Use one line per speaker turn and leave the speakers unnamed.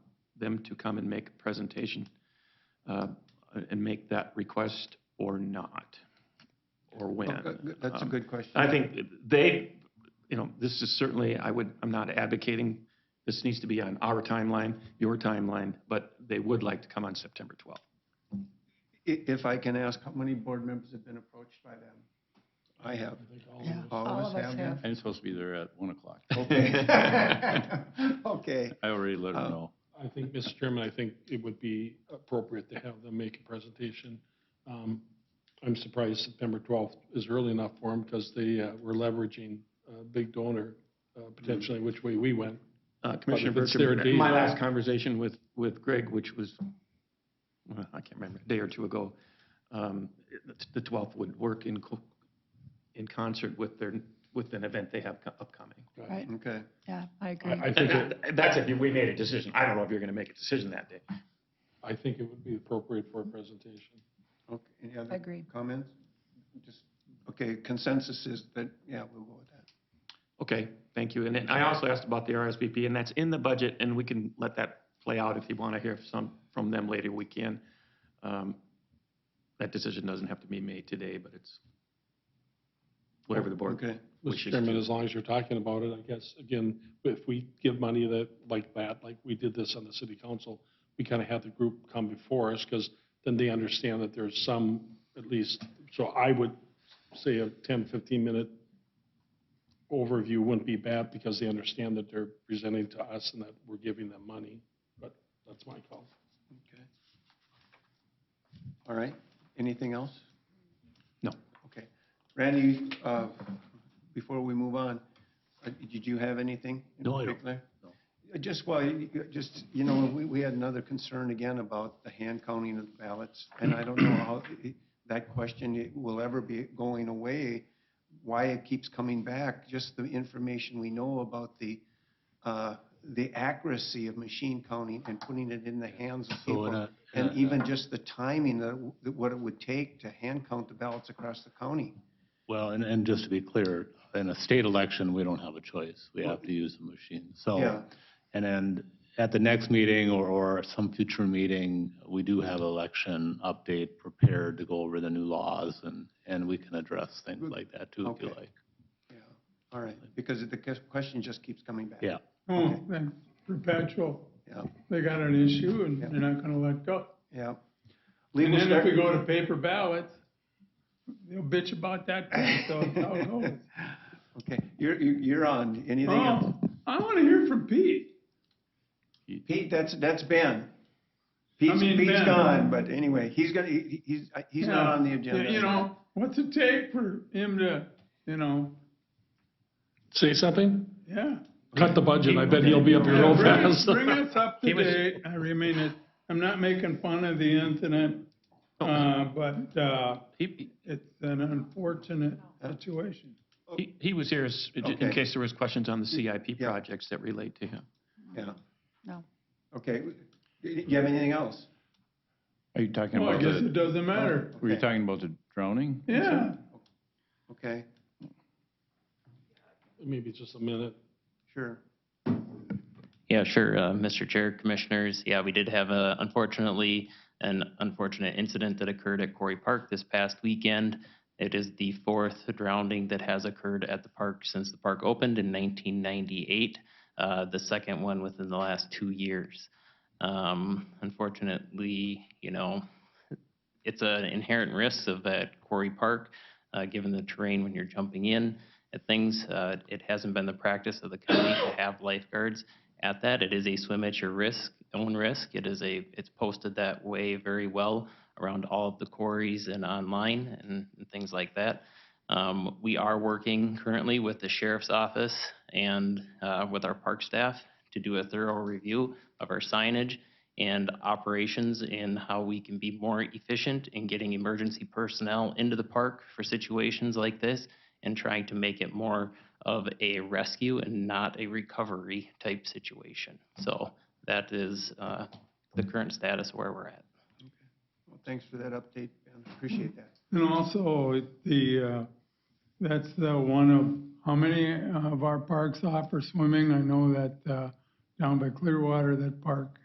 them to come and make a presentation uh, and make that request or not, or
Oh,
when.
good- That's a
Um,
good question.
I think they, you know, this is certainly, I would, I'm not advocating, this needs to be on our timeline, your timeline, but they would like to come on September 12th.
I- If I can ask, how many board members have been approached by them? I have. All
All
of
of
us
us
have
have.
been?
I'm supposed to be there at 1 o'clock.
Okay. Okay.
I already let
Uh,
her know.
I think, Mr. Chairman, I think it would be appropriate to have them make a presentation. Um, I'm surprised September 12th is early enough for them because they uh, were leveraging a big donor, uh, potentially which way we went.
Uh, Commissioner
it's their
Bertram,
day.
my last conversation with, with Greg, which was, well, I can't remember, a day or two ago, um, it- the 12th would work in, co- in concert with their, with an event they have co- upcoming.
Right,
Okay.
yeah, I agree.
I I think, it-
And That's if you- we made a decision. I don't know if you're going to make a decision that day.
I think it would be appropriate for a presentation.
Okay. Any other
Agreed.
comments? Just, okay, consensus is that, yeah, we'll go with that.
Okay, thank you. And then I also asked about the RSVP, and that's in the budget, and we can let that play out if you want to hear some from them later, we can. Um, That decision doesn't have to be made today, but it's whatever the board
Okay.
wishes
Mr.
to.
Chairman, as long as you're talking about it, I guess, again, if we give money that, like that, like we did this on the city council, we kind of have the group come before us, because then they understand that there's some, at least, so I would say a 10, 15-minute overview wouldn't be bad, because they understand that they're presenting to us and that we're giving them money, but that's my call.
Okay. All right, anything else?
No.
Okay. Randy, uh, before we move on, uh, did you have anything? in
No, I don't.
particular?
No.
Uh, Just why, you- just, you know, we, we had another concern again about the hand counting of ballots, and I don't know how i- that question i- will ever be going away, why it keeps coming back, just the information we know about the, uh, the accuracy of machine counting and putting it in the hands of
So,
people.
uh,
And
uh,
even just the timing, that w- that what it would take to hand count the ballots across the county.
Well, and, and just to be clear, in a state election, we don't have a choice. We have to use the machine.
Yeah.
So, and then at the next meeting or, or some future meeting, we do have election update prepared to go over the new laws and, and we can address things like that too, if you
Okay.
like.
Yeah, all right, because the ques- question just keeps coming back.
Yeah.
Hmm.
Oh, then perpetual,
Yeah,
they got an issue and
Yeah.
they're not gonna let go.
yeah.
And
Legal
then if we
start-
go to paper ballots, they'll bitch about that, too, so it's how it goes.
Okay, you're, you're you're on, anything else?
Oh, I wanna hear from Pete.
Pete, that's, that's Ben. Pete's,
mean,
Pete's
Ben.
gone, but anyway, he's gonna, he- he's, uh, he's not on the agenda.
You know, what's it take for him to, you know,
Say something?
yeah.
Cut the budget, I bet he'll be up here real
Bring
fast.
us- Bring us up to
was-
date, I remain it, I'm not making fun of the incident,
Oh.
uh, but, uh,
He,
it's an unfortunate
Oh.
situation.
he- he was here as- in
Okay.
case there was questions on the CIP
Yeah.
projects that relate to him.
Yeah,
No,
okay, you you have anything else?
Are you talking
Well, I
about
guess it
the,
doesn't matter,
were you
Okay.
talking about the drowning?
yeah.
Okay,
Maybe just a minute.
sure.
Yeah, sure. uh, Mr. Chair, Commissioners, yeah, we did have a, unfortunately, an unfortunate incident that occurred at Quarry Park this past weekend. It is the fourth drowning that has occurred at the park since the park opened in 1998, uh, the second one within the last two years. Um, Unfortunately, you know, it's an inherent risk of that Quarry Park, uh, given the terrain when you're jumping in at things. uh, It hasn't been the practice of the county to have lifeguards at that. It is a swim at your risk, own risk. It is a, it's posted that way very well around all of the quarries and online and, and things like that. Um, we are working currently with the sheriff's office and uh, with our park staff to do a thorough review of our signage and operations and how we can be more efficient in getting emergency personnel into the park for situations like this and trying to make it more of a rescue and not a recovery type situation. So that is uh, the current status where we're at.
Well, Thanks for that update, Ben, appreciate that.
And also, the, uh, that's the one of, how many of our parks offer swimming? I know that uh, down by uh, Clearwater, that park